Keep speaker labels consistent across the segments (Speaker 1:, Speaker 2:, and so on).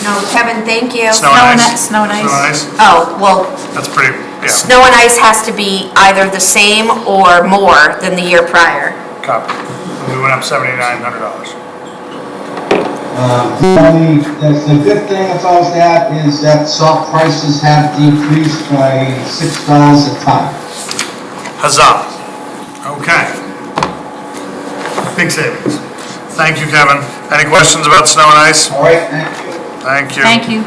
Speaker 1: No, Kevin, thank you.
Speaker 2: Snow and
Speaker 3: Snow and
Speaker 2: ice.
Speaker 3: i- snow and ice.
Speaker 1: Oh, well,
Speaker 2: That's pretty, yeah,
Speaker 1: snow and ice has to be either the same or more than the year prior.
Speaker 2: copy. We went up seventy-nine hundred dollars.
Speaker 4: Um, The only, that's the good thing that's always that is that salt prices have decreased by six dollars a ton.
Speaker 2: Huzzah. Okay. Big savings. Thank you, Kevin. Any questions about snow and ice?
Speaker 4: All right, thank you.
Speaker 2: Thank you.
Speaker 3: Thank you.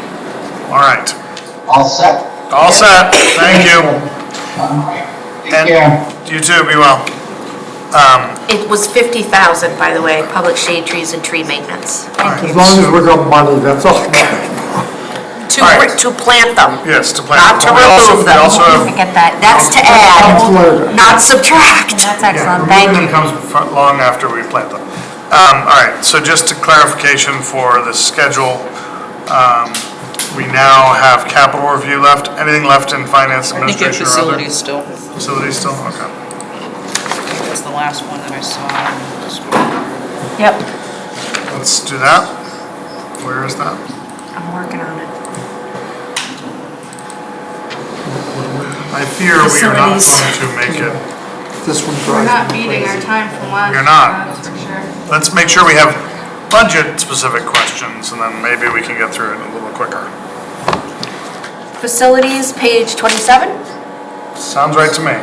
Speaker 2: All right.
Speaker 4: All set?
Speaker 2: All set. Thank you.
Speaker 4: Take care.
Speaker 2: You too, be well. Um,
Speaker 1: It was 50,000, by the way, public shade trees and tree maintenance,
Speaker 2: Thank
Speaker 5: As long as we're got money, that's all.
Speaker 1: to,
Speaker 2: All right.
Speaker 1: to plant them,
Speaker 2: Yes, to plan.
Speaker 1: not to
Speaker 2: We also-
Speaker 1: remove
Speaker 2: We
Speaker 1: them.
Speaker 2: also have
Speaker 3: Get that.
Speaker 1: That's to
Speaker 5: That's
Speaker 1: add,
Speaker 5: later.
Speaker 1: not subtract.
Speaker 3: That's
Speaker 2: Yeah,
Speaker 3: excellent, thank
Speaker 2: Removing
Speaker 3: you.
Speaker 2: them comes fr- long after we plant them. Um, all right, so just to clarification for the schedule, um, we now have capital review left. Anything left in finance
Speaker 6: I think it's
Speaker 2: administration or other?
Speaker 6: facilities still,
Speaker 2: Facilities still, okay.
Speaker 6: that's the last one that I saw.
Speaker 3: Yep,
Speaker 2: Let's do that. Where is that?
Speaker 1: I'm working on it.
Speaker 2: I fear we are not going
Speaker 3: Facilities.
Speaker 2: to make it.
Speaker 5: This one's
Speaker 7: We're
Speaker 5: right.
Speaker 7: not meeting our time from last.
Speaker 2: You're not.
Speaker 7: That's for sure.
Speaker 2: Let's make sure we have budget-specific questions, and then maybe we can get through it a little quicker.
Speaker 1: Facilities, page 27?
Speaker 2: Sounds right to me.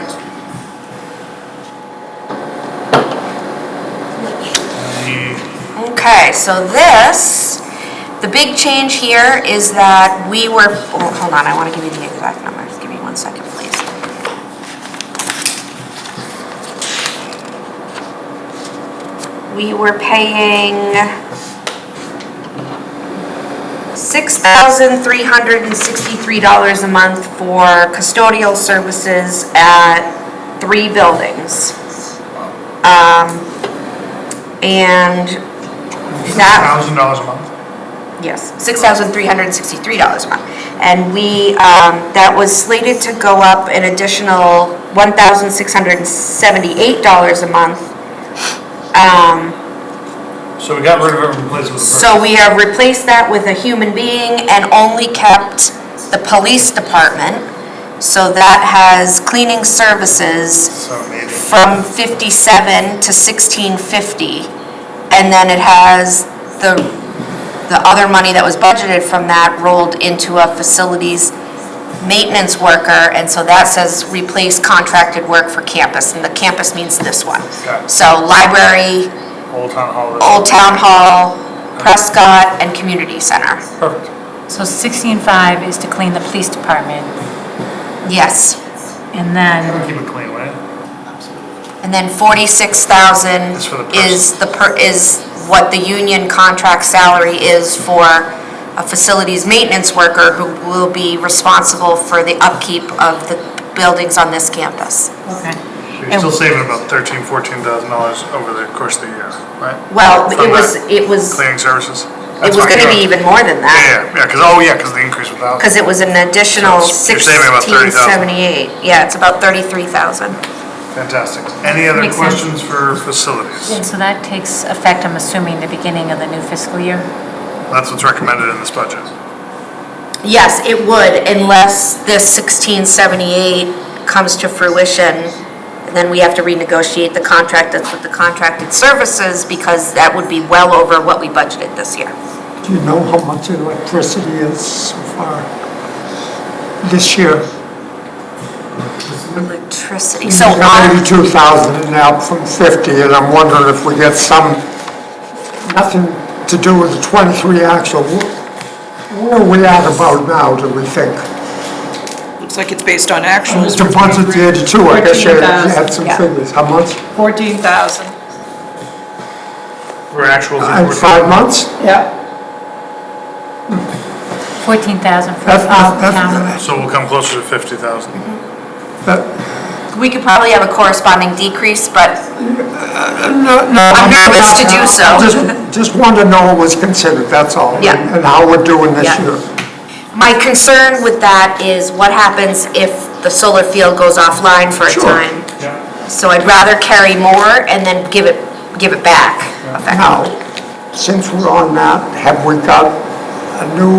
Speaker 2: The-
Speaker 1: Okay, so this, the big change here is that we were, oh, hold on, I want to give you the exact number. Give me one second, please. We were paying $6,363 a month for custodial services at three buildings. Um, And that
Speaker 2: Thousand dollars a month?
Speaker 1: Yes, $6,363 a month. And we, um, that was slated to go up an additional $1,678 a month. Um,
Speaker 2: So we got rid of it and replaced it with a person.
Speaker 1: So we have replaced that with a human being and only kept the police department. So that has cleaning services
Speaker 2: So needed.
Speaker 1: from 57 to 1650. And then it has the, the other money that was budgeted from that rolled into a facilities maintenance worker. And so that says replace contracted work for campus, and the campus means this one.
Speaker 2: Got it.
Speaker 1: So library,
Speaker 2: Old Town Hall. is-
Speaker 1: Old Town Hall, Prescott, and Community Center.
Speaker 2: Perfect.
Speaker 3: so sixteen-five is to clean the police department,
Speaker 1: Yes.
Speaker 3: and then,
Speaker 2: Keep it clean, right?
Speaker 1: And then 46,000
Speaker 2: Is for the person.
Speaker 1: is the, per- is what the union contract salary is for a facilities maintenance worker who will be responsible for the upkeep of the buildings on this campus.
Speaker 3: okay.
Speaker 2: So you're still saving about thirteen, fourteen thousand dollars over the course of the year, right?
Speaker 1: Well,
Speaker 2: From
Speaker 1: it was,
Speaker 2: that
Speaker 1: it was, it
Speaker 2: Cleaning services? That's
Speaker 1: was
Speaker 2: fine,
Speaker 1: gonna be
Speaker 2: yeah.
Speaker 1: even more than that,
Speaker 2: Yeah, yeah, yeah, because, oh, yeah, because the increase was thousand.
Speaker 1: because it was an additional
Speaker 2: So it's- you're saving about 30,000.
Speaker 1: 1678. Yeah, it's about 33,000.
Speaker 2: Fantastic. Any other
Speaker 3: Makes sense.
Speaker 2: questions for facilities?
Speaker 3: And so that takes effect, I'm assuming, the beginning of the new fiscal year?
Speaker 2: That's what's recommended in this budget.
Speaker 1: Yes, it would unless this 1678 comes to fruition. and Then we have to renegotiate the contract that's with the contracted services because that would be well over what we budgeted this year.
Speaker 5: Do you know how much electricity is so far this year?
Speaker 1: Electricity,
Speaker 5: We
Speaker 1: so
Speaker 5: got
Speaker 1: on,
Speaker 5: 82,000 and out from 50, and I'm wondering if we get some, nothing to do with the 23 actual. Wh- Where are we at about now, do we think?
Speaker 6: Looks like it's based on actuals.
Speaker 5: To budget the 82, I guess you had
Speaker 6: 14,000,
Speaker 5: some
Speaker 6: yeah.
Speaker 5: figures. How much?
Speaker 6: Fourteen thousand.
Speaker 2: We're actuals.
Speaker 5: In five months?
Speaker 6: Yeah.
Speaker 3: Fourteen thousand for
Speaker 5: That's not,
Speaker 3: the
Speaker 5: that's
Speaker 3: town.
Speaker 2: So we'll come closer to fifty thousand.
Speaker 5: that-
Speaker 1: we could probably have a corresponding decrease, but
Speaker 5: No, no,
Speaker 1: I'm nervous to do so.
Speaker 5: I Just, just want to know what was considered, that's all.
Speaker 1: Yeah.
Speaker 5: and- And how we're doing this
Speaker 1: Yeah.
Speaker 5: year.
Speaker 1: my concern with that is what happens if the solar field goes offline for a
Speaker 5: Sure.
Speaker 1: time? So I'd rather carry more and then give it, give it back effectively.
Speaker 5: Now, since we're on that, have we got a new